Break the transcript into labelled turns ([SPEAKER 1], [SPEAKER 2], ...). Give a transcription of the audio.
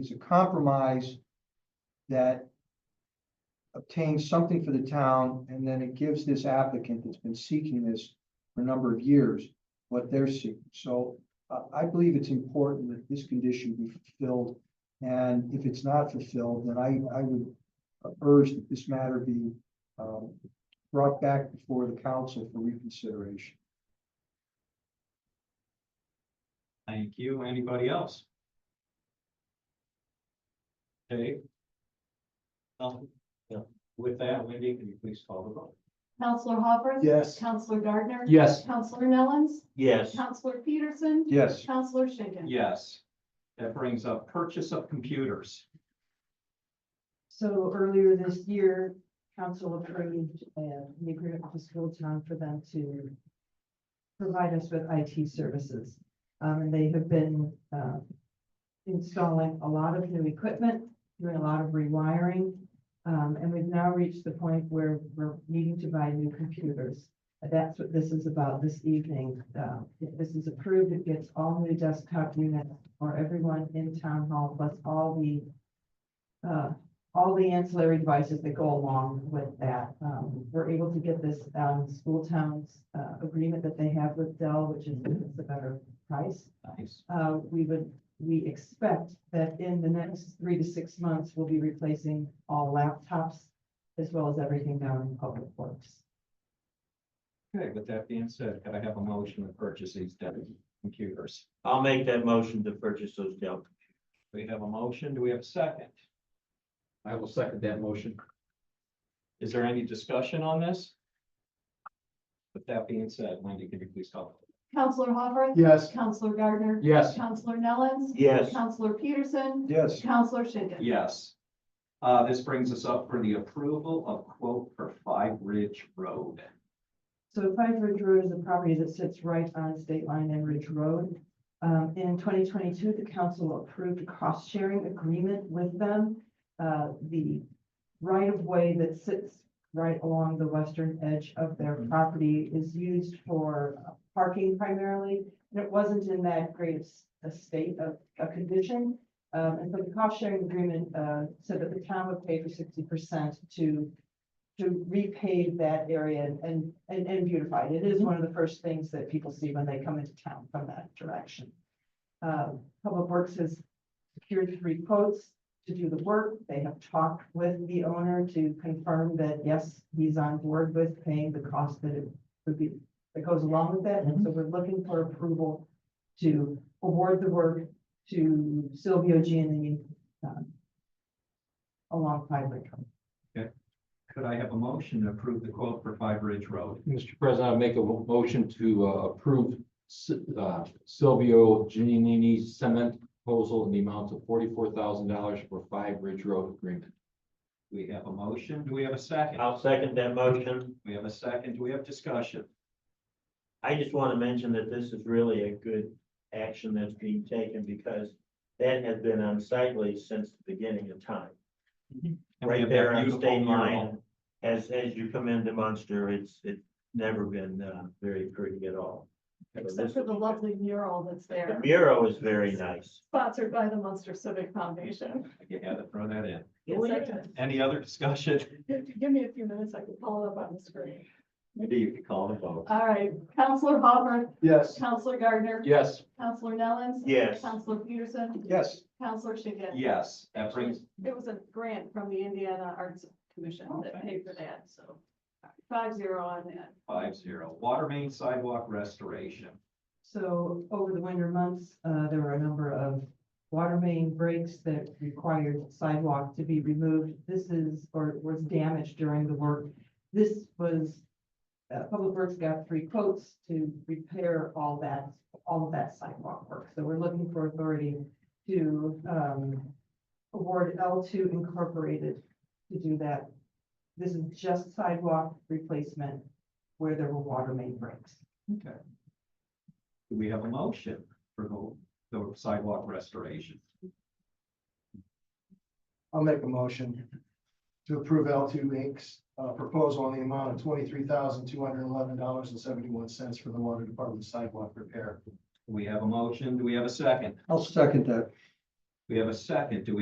[SPEAKER 1] it's a compromise that obtains something for the town, and then it gives this applicant that's been seeking this for a number of years, what they're seeking. So uh, I believe it's important that this condition be fulfilled. And if it's not fulfilled, then I, I would urge that this matter be um, brought back before the council for reconsideration.
[SPEAKER 2] Thank you. Anybody else? Okay. Um, yeah. With that, Wendy, can you please call the vote?
[SPEAKER 3] Counselor Hopper.
[SPEAKER 1] Yes.
[SPEAKER 3] Counselor Gardner.
[SPEAKER 4] Yes.
[SPEAKER 3] Counselor Nellens.
[SPEAKER 4] Yes.
[SPEAKER 3] Counselor Peterson.
[SPEAKER 1] Yes.
[SPEAKER 3] Counselor Schinkin.
[SPEAKER 2] Yes. That brings up purchase of computers.
[SPEAKER 5] So earlier this year, council approved uh, the agreement with the school town for them to provide us with IT services. Um, and they have been, uh, installing a lot of new equipment, doing a lot of rewiring. Um, and we've now reached the point where we're needing to buy new computers. And That's what this is about this evening. Uh, if this is approved, it gets all new desktop units for everyone in town hall, plus all the uh, all the ancillary devices that go along with that. Um, we're able to get this, um, school towns, uh, agreement that they have with Dell, which is, it's a better price.
[SPEAKER 2] Nice.
[SPEAKER 5] Uh, we would, we expect that in the next three to six months, we'll be replacing all laptops as well as everything down in public works.
[SPEAKER 2] Okay, with that being said, could I have a motion to purchase these Dell computers?
[SPEAKER 4] I'll make that motion to purchase those Dell.
[SPEAKER 2] We have a motion. Do we have a second?
[SPEAKER 6] I will second that motion.
[SPEAKER 2] Is there any discussion on this? With that being said, Wendy, can you please call?
[SPEAKER 3] Counselor Hopper.
[SPEAKER 6] Yes.
[SPEAKER 3] Counselor Gardner.
[SPEAKER 6] Yes.
[SPEAKER 3] Counselor Nellens.
[SPEAKER 4] Yes.
[SPEAKER 3] Counselor Peterson.
[SPEAKER 1] Yes.
[SPEAKER 3] Counselor Schinkin.
[SPEAKER 2] Yes. Uh, this brings us up for the approval of quote for Five Ridge Road.
[SPEAKER 5] So Five Ridge Road is a property that sits right on State Line and Ridge Road. Um, in twenty twenty-two, the council approved a cost-sharing agreement with them. Uh, the right-of-way that sits right along the western edge of their property is used for parking primarily. And it wasn't in that great a state of, a condition. Um, and so the cost-sharing agreement, uh, said that the town would pay for sixty percent to to repave that area and- and, and, and beautify it. It is one of the first things that people see when they come into town from that direction. Um, Public Works has secured three quotes to do the work. They have talked with the owner to confirm that, yes, he's on board with paying the cost that it would be, that goes along with that. And so we're looking for approval to award the work to Silvio Giannini, um, along Pine Lake.
[SPEAKER 2] Could I have a motion to approve the quote for Five Ridge Road?
[SPEAKER 6] Mr. President, I make a mo- motion to uh, approve Si- uh, Silvio Giannini's cement proposal in the amount of forty-four thousand dollars for Five Ridge Road agreement.
[SPEAKER 2] We have a motion. Do we have a second?
[SPEAKER 4] I'll second that motion.
[SPEAKER 2] We have a second. Do we have discussion?
[SPEAKER 4] I just want to mention that this is really a good action that's being taken because that has been unsightly since the beginning of time.
[SPEAKER 2] And we
[SPEAKER 4] Right
[SPEAKER 2] have that
[SPEAKER 4] there on
[SPEAKER 2] beautiful
[SPEAKER 4] state
[SPEAKER 2] mural.
[SPEAKER 4] line. As, as you come into Munster, it's, it's never been, uh, very pretty at all. So
[SPEAKER 3] Except
[SPEAKER 4] this
[SPEAKER 3] for the
[SPEAKER 4] is-
[SPEAKER 3] lovely mural that's
[SPEAKER 4] The
[SPEAKER 3] there,
[SPEAKER 4] mural is very nice.
[SPEAKER 3] sponsored by the Munster Civic Foundation.
[SPEAKER 2] You had to throw that in.
[SPEAKER 3] Yes, I did.
[SPEAKER 2] Any other discussion?
[SPEAKER 3] If you give me a few minutes, I can pull it up on the screen.
[SPEAKER 2] Maybe you could call the vote.
[SPEAKER 3] All right, Counselor Hopper.
[SPEAKER 1] Yes.
[SPEAKER 3] Counselor Gardner.
[SPEAKER 6] Yes.
[SPEAKER 3] Counselor Nellens.
[SPEAKER 4] Yes.
[SPEAKER 3] Counselor Peterson.
[SPEAKER 1] Yes.
[SPEAKER 3] Counselor Schinkin.
[SPEAKER 2] Yes, that brings,
[SPEAKER 3] It was a grant from the Indiana Arts Commission
[SPEAKER 2] Oh,
[SPEAKER 3] that paid for that, so five zero on that.
[SPEAKER 2] Five zero. Water main sidewalk restoration.
[SPEAKER 5] So over the winter months, uh, there were a number of water main breaks that required sidewalk to be removed. This is, or was damaged during the work. This was, uh, Public Works got three quotes to repair all that, all of that sidewalk work. So we're looking for authority to, um, award L two Incorporated to do that. This is just sidewalk replacement where there were water main breaks.
[SPEAKER 2] Okay. Do we have a motion for the, the sidewalk restoration?
[SPEAKER 7] I'll make a motion to approve L two Inc.'s uh, proposal on the amount of twenty-three thousand, two hundred and eleven dollars and seventy-one cents for the water department sidewalk repair.
[SPEAKER 2] We have a motion. Do we have a second?
[SPEAKER 1] I'll second that.
[SPEAKER 2] We have a second. Do we